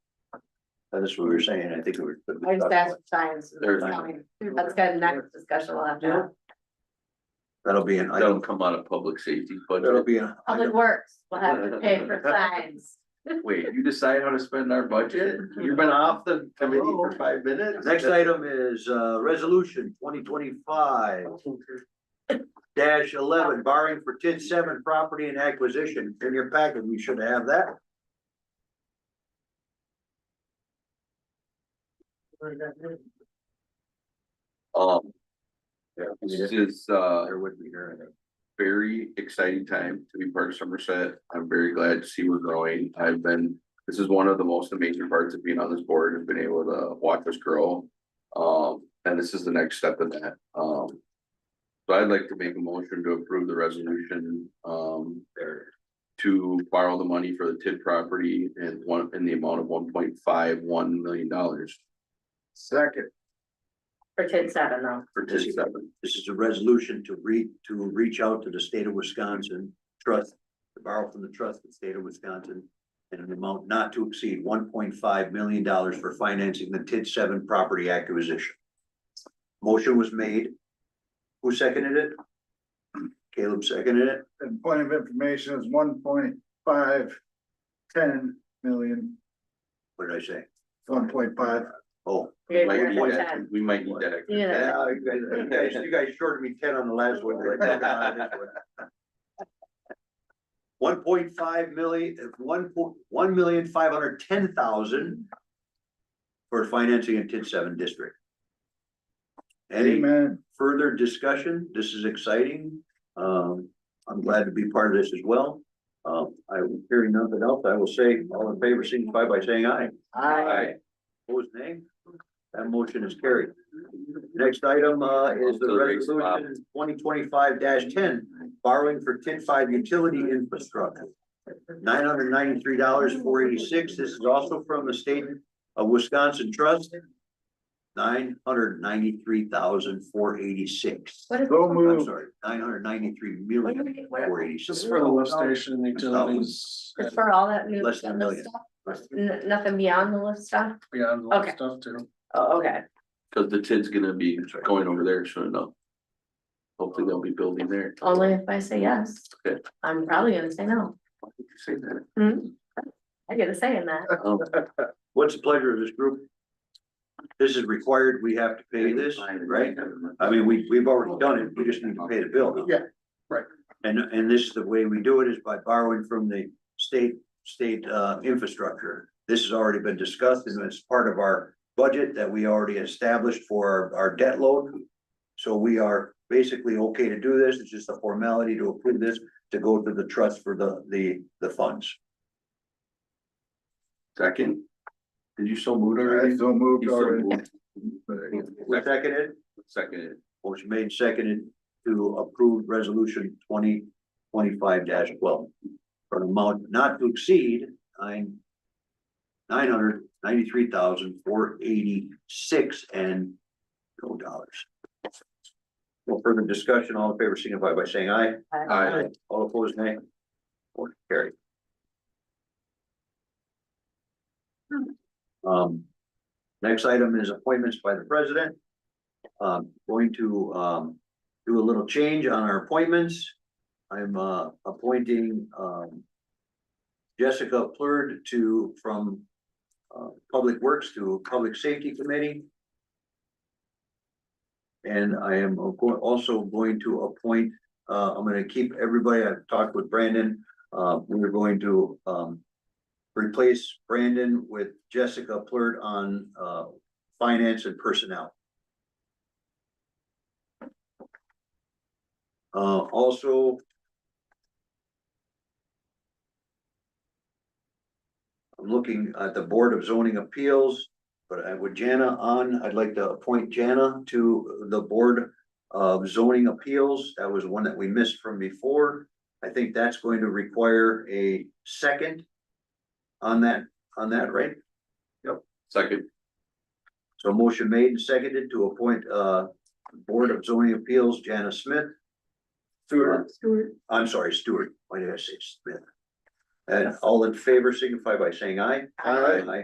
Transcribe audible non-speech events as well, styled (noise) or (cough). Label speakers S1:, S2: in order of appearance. S1: That's what we were saying, I think we were.
S2: I just asked for signs.
S1: There
S2: That's
S1: it is.
S2: fine. That's good, next discussion we'll have to have.
S1: That'll be an
S3: That'll
S1: item,
S3: come out of public safety
S1: that'll
S3: budget.
S1: be an
S2: Public
S1: item,
S2: Works will have to pay
S1: (laughs)
S2: for signs.
S3: Wait, you decide how to spend our budget? You've been off the committee for five minutes?
S1: next item is, uh, resolution twenty twenty-five dash eleven, barring for TID seven property and acquisition, in your packet, we should have that.
S3: Um,
S1: There
S3: this is, uh,
S1: there would be here, I think.
S3: very exciting time to be part of Somerset. I'm very glad to see we're growing. I've been, this is one of the most amazing parts of being on this board, has been able to watch us grow. Um, and this is the next step in that. Um, so I'd like to make a motion to approve the resolution, um,
S1: there.
S3: to borrow the money for the TID property and one, in the amount of one point five one million dollars
S1: Second.
S2: For TID seven though.
S3: for TID seven.
S1: This is a resolution to read, to reach out to the state of Wisconsin trust, to borrow from the trust of the state of Wisconsin. In an amount not to exceed one point five million dollars for financing the TID seven property acquisition. Motion was made. Who seconded it? Caleb seconded it.
S4: and point of information is one point five ten million,
S1: What did I say?
S4: one point five.
S1: Oh.
S2: You're-
S3: Might
S2: you're
S3: need
S2: for
S3: that-
S2: 10.
S3: We might need that. extra
S2: Yeah.
S3: cash.
S1: Yeah, you guys, you guys, you guys shorted me ten on the last one. but I got it on this one. One point five million, one point, one million five hundred ten thousand for financing in TID seven district. Any
S4: Amen.
S1: further discussion? This is exciting. Um, I'm glad to be part of this as well. Um, I, hearing nothing else, I will say, all in favor, signify by saying aye.
S3: Aye.
S1: Opposed, nay? That motion is carried. Next item, uh, is the resolution twenty twenty-five ten, borrowing for TID five utility infrastructure. Nine hundred ninety-three dollars, four eighty-six. This is also from the state of Wisconsin Trust. Nine hundred ninety-three thousand, four eighty-six.
S2: What is,
S4: So
S1: I'm
S4: moved.
S1: sorry, nine hundred ninety-three
S2: What do we
S1: million,
S2: get? What-
S1: four eighty-six.
S4: station
S1: utilities,
S2: it's for all that new.
S1: Less than a
S2: lift
S1: million.
S2: stuff? N- Nothing beyond the lift stuff?
S4: beyond
S2: lift Okay.
S4: stuff too.
S2: Oh, okay.
S3: Cause the TID's gonna be going over there soon enough. Hopefully they'll be building there.
S2: Only if I say yes.
S3: Good.
S2: I'm probably gonna say no.
S3: Why did you say
S1: (laughs)
S3: that?
S2: I get a say in that.
S3: Um,
S1: What's the pleasure of this group? This is required. We have to pay this, right? I mean, we, we've already done it, we just need to pay the bill. now.
S4: Yeah, right.
S1: And, and this is the way we do it is by borrowing from the state, state, uh, infrastructure. This has already been discussed and it's part of our budget that we already established for our- our debt load. So we are basically okay to do this, it's just a formality to approve this, to go to the trust for the, the, the funds.
S3: Second. Did you so move
S4: I
S3: already?
S4: so moved
S3: You so
S4: already.
S3: moved.
S1: Who Seconded,
S3: Seconded.
S1: motion made, and seconded to approve resolution twenty twenty-five twelve. For an amount not to exceed nine. Nine hundred ninety-three thousand four eighty-six and no dollars. No further discussion, all in favor signify by saying aye.
S3: Aye.
S1: All opposed, nay. Motion carried. Um, next item is appointments by the president. Um, going to, um, do a little change on our appointments. I'm, uh, appointing, um, Jessica Plurd to, from, uh, Public Works to Public Safety Committee. And I am go- also going to appoint uh, I'm gonna keep everybody, I've talked with Brandon, uh, we're going to, um. Replace Brandon with Jessica Plurd on, uh, finance and personnel. Uh, also. I'm looking at the Board of Zoning Appeals, but I, with Jana on, I'd like to appoint Jana to the Board of zoning appeals. That was one that we missed from before. I think that's going to require a second on that, on that, right?
S3: Second.
S1: So motion made and seconded to appoint, uh, Board of Zoning Appeals, Janice Smith.
S2: uh,
S1: Stewart. I'm sorry, Stewart. Why did I say Smith? And all in favor signify by saying aye.
S2: Aye.
S1: Aye.